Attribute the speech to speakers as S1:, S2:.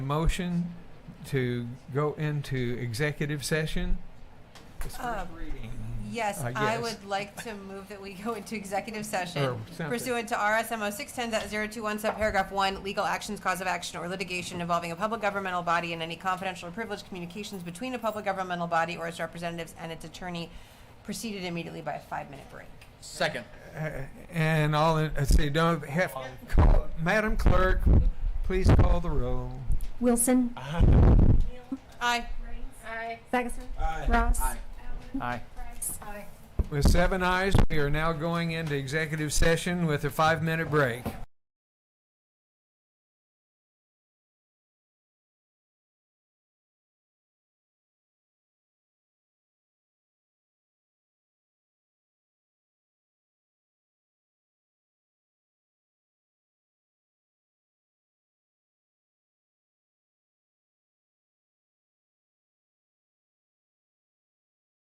S1: motion to go into executive session? It's first
S2: Um,
S1: reading.
S2: Yes,
S1: Uh,
S2: I
S1: yes.
S2: would like to move that we go into executive
S1: Or
S2: session
S1: something.
S2: pursuant to RSMO 610.021 subparagraph 1, legal actions, cause of action, or litigation involving a public governmental body and any confidential or privileged communications between a public governmental body or its representatives and its attorney, preceded immediately by a five-minute break.
S3: Second.
S1: Uh, And all, in- uh, so you don't have, call- Madam Clerk, please call the roll.
S4: Wilson.
S2: Aye.
S4: Ferguson. Ross.
S3: Aye.
S1: With seven eyes, we are now going into executive session with a five-minute break.